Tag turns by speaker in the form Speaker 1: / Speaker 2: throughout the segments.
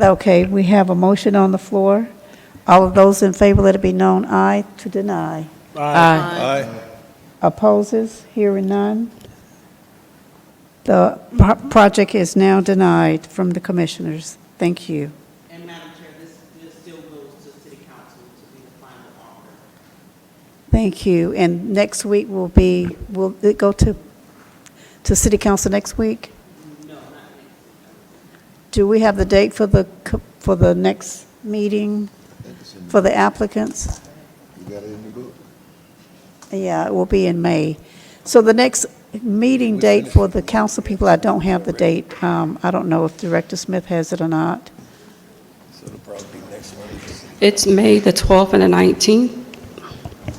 Speaker 1: Okay, we have a motion on the floor. All of those in favor, let it be known, aye to deny.
Speaker 2: Aye.
Speaker 1: Opposes, hearing none. The pro- project is now denied from the commissioners. Thank you.
Speaker 3: And Madam Chair, this this still goes to City Council to be the final arbiter.
Speaker 1: Thank you. And next week will be, will it go to, to city council next week?
Speaker 3: No, not next.
Speaker 1: Do we have the date for the, co- for the next meeting for the applicants?
Speaker 4: You got it in the book.
Speaker 1: Yeah, it will be in May. So the next meeting date for the council people, I don't have the date. Um, I don't know if Director Smith has it or not.
Speaker 4: So it'll probably be next Monday.
Speaker 2: It's May the 12th and the 19th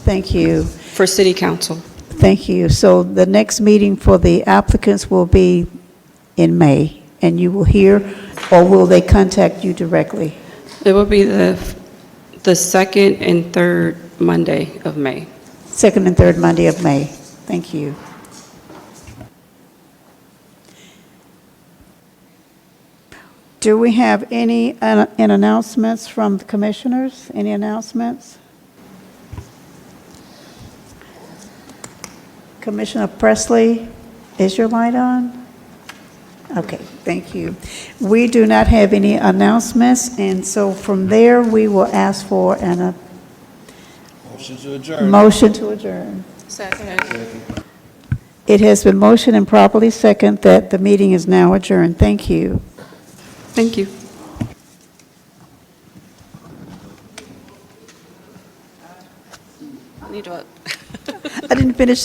Speaker 1: Thank you.
Speaker 2: for city council.
Speaker 1: Thank you. So the next meeting for the applicants will be in May, and you will hear, or will they contact you directly?
Speaker 2: It will be the, the second and third Monday of May.
Speaker 1: Second and third Monday of May. Thank you. Do we have any uh, an announcements from the commissioners? Any announcements? Commissioner Presley, is your light on? Okay, thank you. We do not have any announcements, and so from there, we will ask for an uh,
Speaker 4: Motion to adjourn.
Speaker 1: Motion to adjourn.
Speaker 2: Second.
Speaker 1: It has been motioned and properly second that the meeting is now adjourned. Thank you.
Speaker 2: Thank you.
Speaker 5: Need to vote.
Speaker 1: I didn't finish